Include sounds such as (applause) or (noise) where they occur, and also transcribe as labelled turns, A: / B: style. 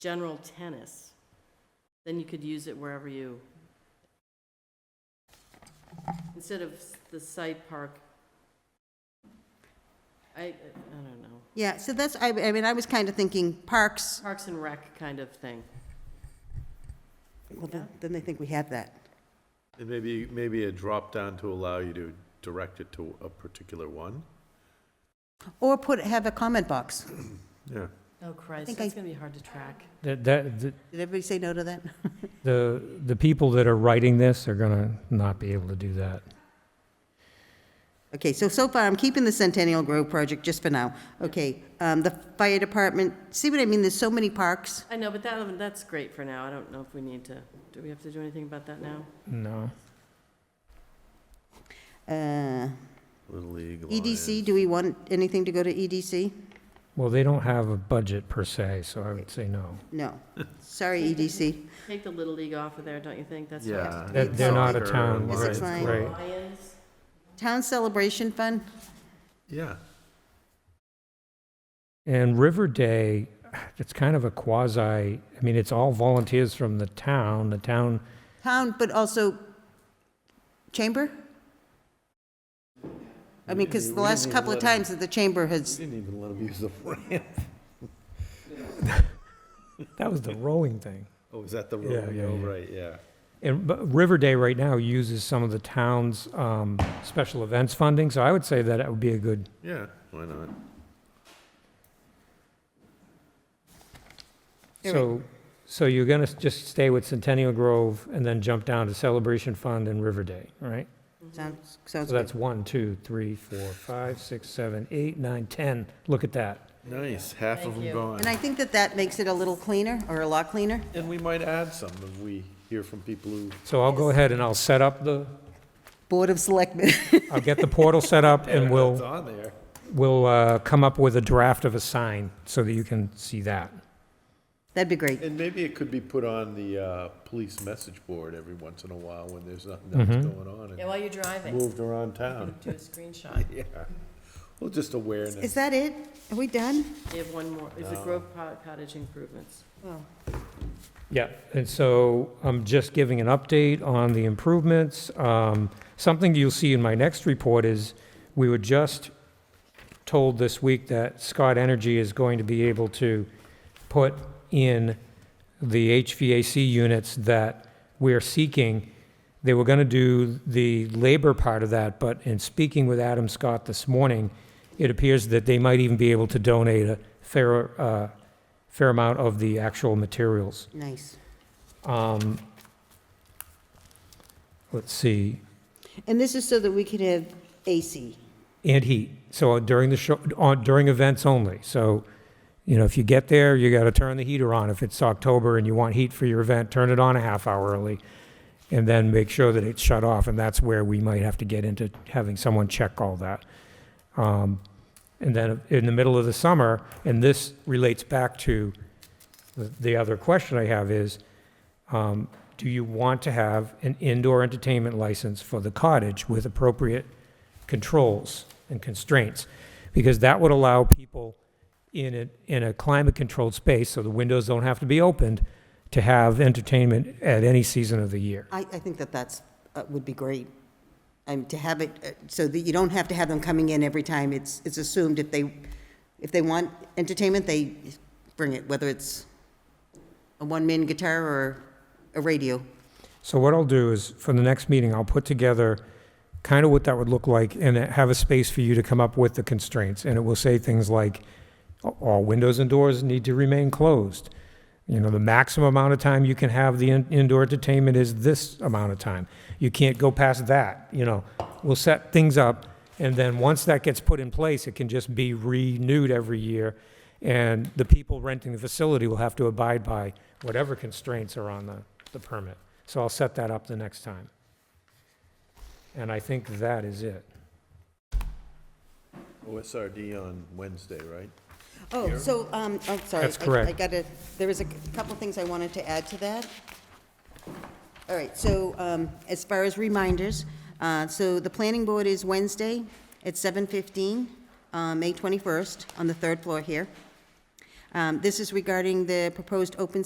A: general tennis, then you could use it wherever you, instead of s- the site park. I, I don't know,
B: Yeah, so that's, I, I mean, I was kind of thinking parks,
A: Parks and Rec kind of thing.
B: well, then, then they think we have that.
C: And maybe, maybe a drop-down to allow you to direct it to a particular one?
B: Or put, have a comment box.
C: Yeah.
A: Oh, Christ,
B: think
A: that's
B: I-
A: gonna be hard to track.
D: That, that, the-
B: Did everybody say no to that?
D: the, the people that are writing this are gonna not be able to do that.
B: Okay, so, so far, I'm keeping the Centennial Grove project just for now. Okay, um, the fire department, see what I mean? There's so many parks.
A: I know, but that, that's great for now. I don't know if we need to, do we have to do anything about that now?
D: No.
B: Uh,
C: Little League,
A: E
B: EDC,
C: Lions.
B: E do we want anything to go to E EDC?
D: Well, they don't have a budget per se, so I would say no.
B: No. Sorry, E EDC.
A: Take the Little League off of there, don't you think? That's what-
C: Yeah.
D: That- they're not a
C: Soccer,
D: town,
B: Is it
D: right,
B: fine?
D: right.
A: Lions,
B: Town Celebration Fund?
C: Yeah,
D: And River Day, it's kind of a quasi, I mean, it's all volunteers from the town. The town
B: Town, but also chamber? I mean, because the last couple of times that the chamber has,
C: didn't even let them use the ramp.
D: That was the rolling thing.
C: (laughs) Oh, is that the
D: Yeah,
C: road?
D: yeah,
C: Oh,
D: yeah.
C: right, yeah.
D: And but River Day right now uses some of the town's um, special events funding, so I would say that it would be a good,
C: Yeah, why not?
B: You're
D: so, so you're going to just stay with Centennial Grove and then jump down to Celebration Fund and River Day, right?
B: sounds, sounds
D: So
B: good.
D: that's one, two, three, four, five, six, seven, eight, nine, ten. Look at that.
C: Nice, half of
A: Thank
C: them
A: you.
C: gone.
B: And I think that that makes it a little cleaner, or a lot cleaner.
C: And we might add some if we hear from people who,
D: So I'll go ahead and I'll set up the,
B: Board of Selectmen. (laughs)
D: I'll get the portal set up and
C: it's
D: we'll,
C: on there.
D: we'll uh, come up with a draft of a sign so that you can see that.
B: That'd be great.
C: And maybe it could be put on the, uh, police message board every once in a while when there's nothing
D: Mm-hmm.
C: else going on
A: yeah, while you're driving,
C: and moved around town.
A: do a screenshot.
C: (laughs) Yeah, well, just awareness.
B: Is that it? Are we done?
A: They have one more, is it Grove Pot- Cottage improvements?
D: Yeah, and so I'm just giving an update on the improvements. Um, Something you'll see in my next report is, we were just told this week that Scott Energy is going to be able to put in the HVAC units that we're seeking. They were going to do the labor part of that, but in speaking with Adam Scott this morning, it appears that they might even be able to donate a fair, uh, fair amount of the actual materials.
B: Nice.
D: Um, Let's see,
B: And this is so that we could have AC.
D: and heat, so during the show, on, during events only, so, you know, if you get there, you gotta turn the heater on, if it's October and you want heat for your event, turn it on a half hour early, and then make sure that it's shut off, and that's where we might have to get into having someone check all that. Um, And then in the middle of the summer, and this relates back to the, the other question I have is, um, do you want to have an indoor entertainment license for the cottage with appropriate controls and constraints? Because that would allow people in a, in a climate-controlled space, so the windows don't have to be opened, to have entertainment at any season of the year.
B: I, I think that that's, uh, would be great. Um, to have it, uh, so that you don't have to have them coming in every time. It's, it's assumed if they, if they want entertainment, they bring it, whether it's a one-man guitar or a radio.
D: So what I'll do is, for the next meeting, I'll put together kind of what that would look like and have a space for you to come up with the constraints. And it will say things like, all windows and doors need to remain closed. You know, the maximum amount of time you can have the in- indoor entertainment is this amount of time. You can't go past that, you know. We'll set things up, and then once that gets put in place, it can just be renewed every year. And the people renting the facility will have to abide by whatever constraints are on the, the permit. So I'll set that up the next time. And I think that is it.
C: OSRD on Wednesday, right?
B: Oh, so, um, I'm sorry.
D: That's
B: I- I
D: correct.
B: gotta, there was a couple things I wanted to add to that. All right, so, um, as far as reminders, uh, so the planning board is Wednesday um, at seven fifteen, uh, May twenty-first, on the third floor here. Um, This is regarding the proposed open